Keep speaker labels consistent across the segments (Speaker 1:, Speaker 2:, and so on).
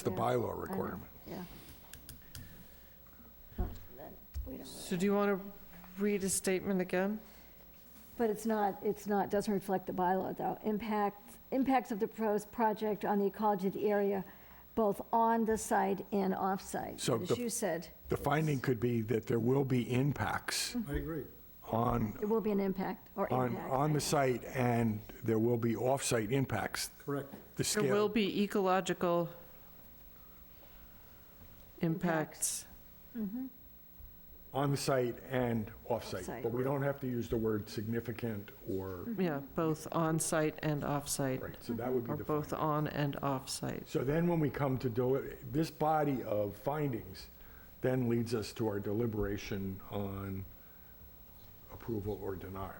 Speaker 1: the bylaw requirement.
Speaker 2: yeah. Well, then we don't really-
Speaker 3: So do you want to read a statement again?
Speaker 2: But it's not, it's not, doesn't reflect the bylaw, though. Impact, impacts of the proposed project on the ecology of the area, both on the site and off-site,
Speaker 1: So
Speaker 2: as
Speaker 1: the-
Speaker 2: you said.
Speaker 1: The finding could be that there will be impacts
Speaker 4: I agree.
Speaker 1: on,
Speaker 2: It will be an impact, or
Speaker 1: on,
Speaker 2: impact.
Speaker 1: on the site, and there will be off-site impacts.
Speaker 4: Correct.
Speaker 1: The
Speaker 3: There
Speaker 1: scale,
Speaker 3: will be ecological impacts.
Speaker 1: on the site and off-site,
Speaker 2: Off-site.
Speaker 1: but we don't have to use the word significant or,
Speaker 3: Yeah, both on-site and off-site,
Speaker 1: right, so that would be
Speaker 3: or
Speaker 1: the
Speaker 3: both on and off-site.
Speaker 1: So then when we come to, deli- this body of findings then leads us to our deliberation on approval or denial.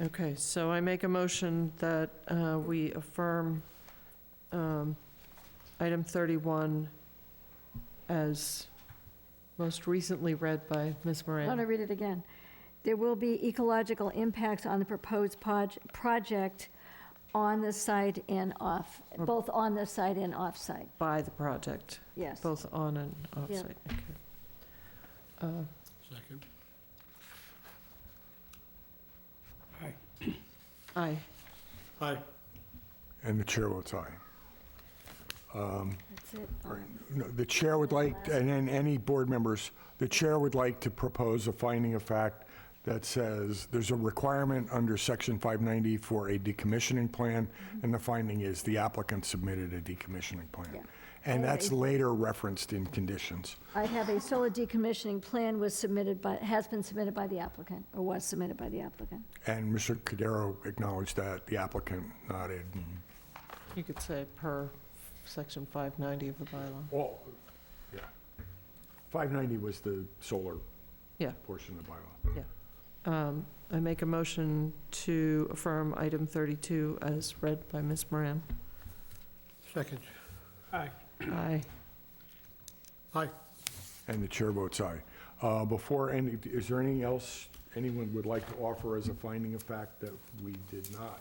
Speaker 3: Okay, so I make a motion that uh, we affirm um, item 31 as most recently read by Ms.
Speaker 2: I want to
Speaker 3: Moran.
Speaker 2: read it again. There will be ecological impacts on the proposed proj- project on the site and off, both on the site and off-site,
Speaker 3: By the project,
Speaker 2: yes.
Speaker 3: both on and off-site. Okay. Uh,
Speaker 4: Second.
Speaker 3: Aye.
Speaker 4: Aye.
Speaker 1: And the chair votes aye.
Speaker 2: That's it.
Speaker 1: No, The chair would like, and then any board members, the chair would like to propose a finding of fact that says there's a requirement under section 590 for a decommissioning plan, and the finding is the applicant submitted a decommissioning
Speaker 2: Yeah.
Speaker 1: plan. And that's later referenced in conditions.
Speaker 2: I have a solar decommissioning plan was submitted by, has been submitted by the applicant, or was submitted by the applicant.
Speaker 1: And Mr. Cudero acknowledged that, the applicant nodded. and-
Speaker 3: You could say per section 590 of the bylaw.
Speaker 1: Well, yeah. 590 was the solar
Speaker 3: Yeah.
Speaker 1: portion of the bylaw.
Speaker 3: Um, I make a motion to affirm item 32 as read by Ms. Moran.
Speaker 4: Second. Aye.
Speaker 3: Aye.
Speaker 4: Aye.
Speaker 1: And the chair votes aye. Uh, Before, any, is there anything else anyone would like to offer as a finding of fact that we did not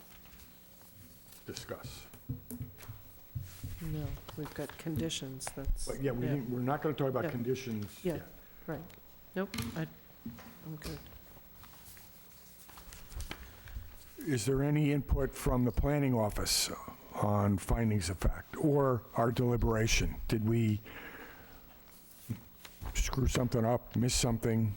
Speaker 1: discuss?
Speaker 3: No, we've got conditions, that's.
Speaker 1: But yeah, we, didn't- we're not going to talk
Speaker 3: Yeah.
Speaker 1: about conditions.
Speaker 3: Yeah.
Speaker 1: yet.
Speaker 3: Right. Nope, I, I'm good.
Speaker 1: Is there any input from the planning office on findings of fact or our deliberation? Did we screw something up, miss something?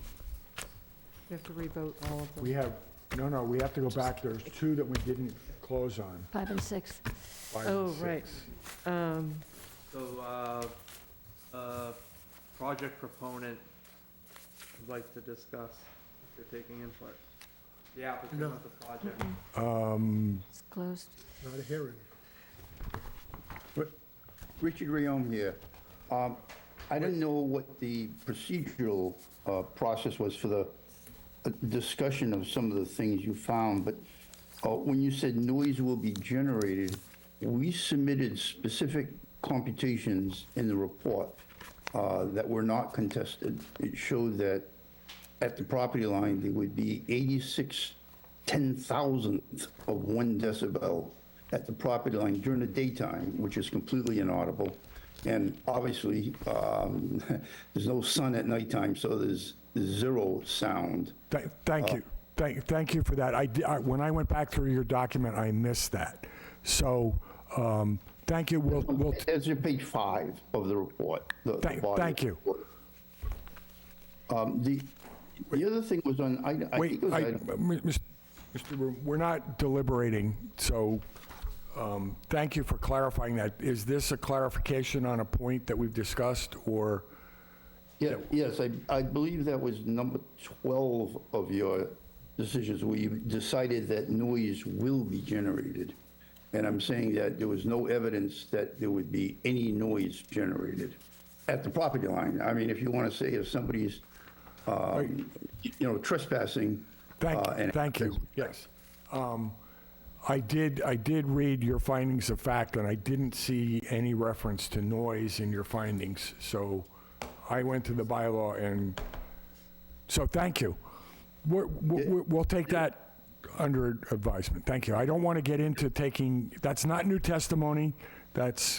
Speaker 3: You have to revote all of
Speaker 1: We
Speaker 3: them.
Speaker 1: have, no, no, we have to go back. There's two that we didn't close on,
Speaker 2: Five and six.
Speaker 1: five and
Speaker 3: Oh, right.
Speaker 1: six.
Speaker 3: Um,
Speaker 5: So, uh, uh, project proponent would like to discuss if they're taking input. The applicant
Speaker 4: No.
Speaker 5: of the project.
Speaker 1: Um,
Speaker 2: It's closed.
Speaker 4: Not a hearing.
Speaker 6: Richard Rayom here. Um, I didn't know what the procedural uh, process was for the uh, discussion of some of the things you found, but uh, when you said noise will be generated, we submitted specific computations in the report uh, that were not contested. It showed that at the property line, there would be 86 ten thousandth of one decibel at the property line during the daytime, which is completely inaudible. And obviously, um, there's no sun at nighttime, so there's zero sound.
Speaker 1: Th-
Speaker 6: Uh.
Speaker 1: Thank you. Thank, thank you for that. I, di- I- when I went back through your document, I missed that. So, um, thank you. We'll, we'll,
Speaker 6: That's your page five of the report. the- the
Speaker 1: Thank-
Speaker 6: body of
Speaker 1: thank
Speaker 6: the
Speaker 1: you.
Speaker 6: report. Um, The, the other thing was on, I I think
Speaker 1: wait,
Speaker 6: it was
Speaker 1: I,
Speaker 6: item
Speaker 1: m- mis- Mr. Broom, we're not deliberating, so, um, thank you for clarifying that. Is this a clarification on a point that we've discussed, or?
Speaker 6: Yeah, yes, I, I believe that was number 12 of your decisions, where you decided that noise will be generated. And I'm saying that there was no evidence that there would be any noise generated at the property line. I mean, if you want to say if somebody's, um, you know, trespassing. uh,
Speaker 1: Thank,
Speaker 6: and-
Speaker 1: thank you, yes. Um, I did, I did read your findings of fact, and I didn't see any reference to noise in your findings, so I went to the bylaw and, so thank you. We're- We'll, we'll take that under advisement, thank you. I don't want to get into taking, that's not new testimony, That's,